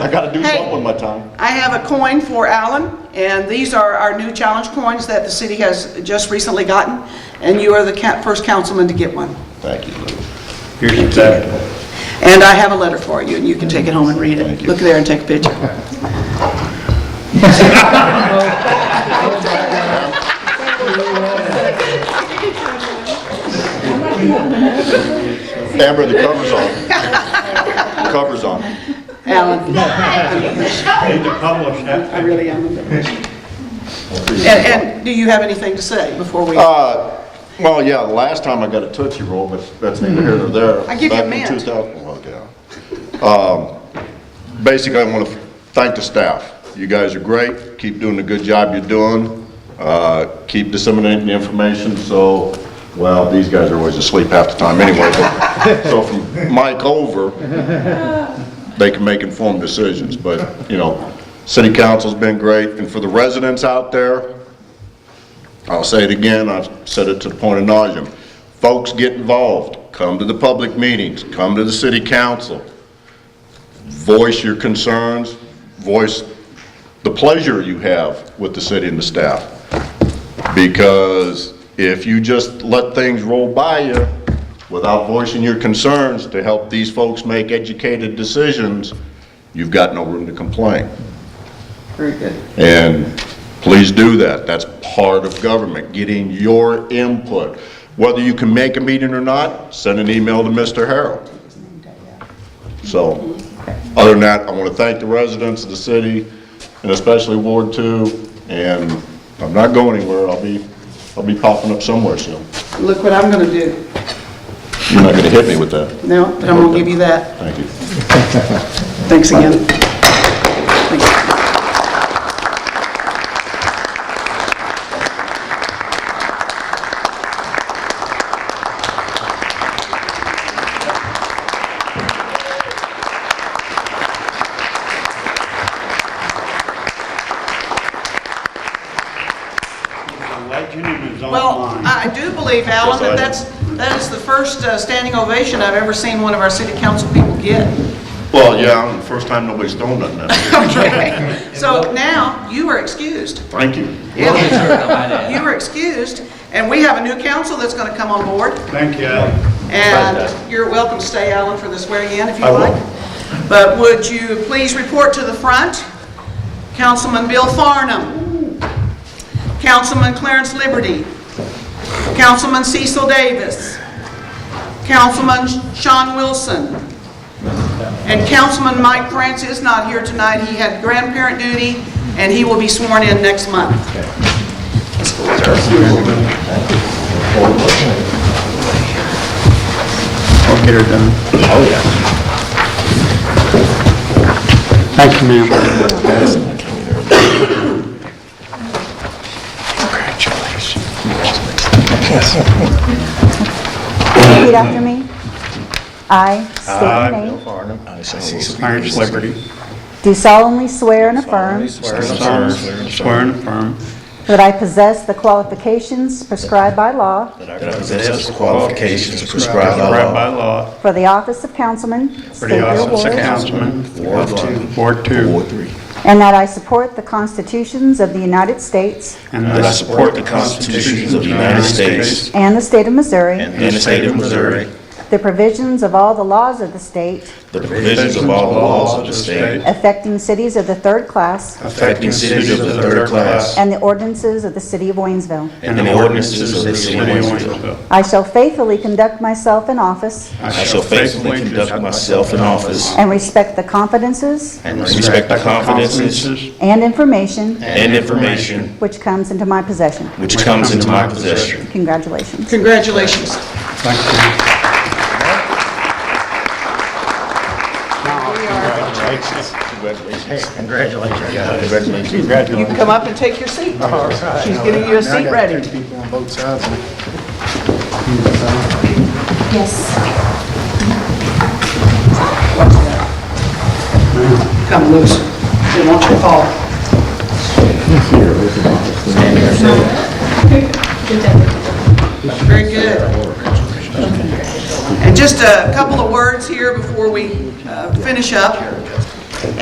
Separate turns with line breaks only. I gotta do
Hey.
something with my time.
I have a coin for Alan, and these are our new challenge coins that the city has just recently gotten, and you are the ca- first councilman to get one.
Thank you, Lou.
Here's that.
And I have a letter for you, and you can take it home and read
Thank
it.
you.
Look there and take a picture.
Amber, the cover's on. The Cover's on.
Alan,
Need to publish that.
I really am. And- And do you have anything to say before we,
Uh, well, yeah, the last time I got a Tootsie Roll, but that's neither here nor there.
I give you a
Back in
mint.
2000 well, yeah. Um, Basically, I want to thank the staff. You guys are great, keep doing the good job you're doing, Uh, keep disseminating the information, so, well, these guys are always asleep half the time anyway, but, so from Mike over, they can make informed decisions, but, you know, city council's been great, and for the residents out there, I'll say it again, I've said it to the point of nauseam. Folks, get involved. Come to the public meetings, come to the city council. Voice your concerns, voice the pleasure you have with the city and the staff. Because if you just let things roll by you without voicing your concerns to help these folks make educated decisions, you've got no room to complain.
very good.
And please do that. That's part of government, getting your input. Whether you can make a meeting or not, send an email to Mr. Harrell. So, other than that, I want to thank the residents of the city, and especially Ward Two, and I'm not going anywhere. I'll be, I'll be popping up somewhere soon.
Look what I'm going to do.
You're not going to hit me with that.
No, but I'm going to give you that.
Thank you.
Thanks again. Thanks.
The legend is
Well,
online.
I do believe, Alan, that that's, that is the first uh, standing ovation I've ever seen one of our city council people get.
Well, yeah, first time nobody's thrown nothing at me.
Okay, so now you are excused.
Thank you.
You are excused, and we have a new council that's going to come on board,
Thank you, Alan.
and you're welcome to stay, Alan, for the swearing-in if you like. But would you please report to the front? Councilman Bill Farnum, Councilman Clarence Liberty, Councilman Cecil Davis, Councilman Sean Wilson, and Councilman Mike France is not here tonight. He had grandparent duty, and he will be sworn in next month.
I'll get her done. Oh, yeah. Thank you, ma'am.
Repeat after me. I state your name.
Clarence Liberty.
Do solemnly swear and affirm
Swear and affirm
that I possess the qualifications prescribed by law
That I possess the qualifications prescribed by
right by
law
law
for the office of councilman,
for
state
the
your
office of
ward,
councilman,
Ward One,
Ward Two,
Ward Three.
and that I support the constitutions of the United States
and
That
that
I support the constitutions of the United States
and the state of Missouri,
and the state of Missouri,
the provisions of all the laws of the state
the provisions of all the laws of the state
affecting cities of the third class,
affecting cities of the third class
and the ordinances of the city of Waynesville.
and the ordinances of the city of Waynesville.
I shall faithfully conduct myself in office
I shall faithfully conduct myself in office
and respect the confidences
and respect the confidences
and information
and information
which comes into my possession.
which comes into my possession.
Congratulations.
Congratulations. You can come up and take your seat. She's getting you a seat ready.
People on both sides.
Come loose. She wants you to fall. Very good. And just a couple of words here before we uh, finish up.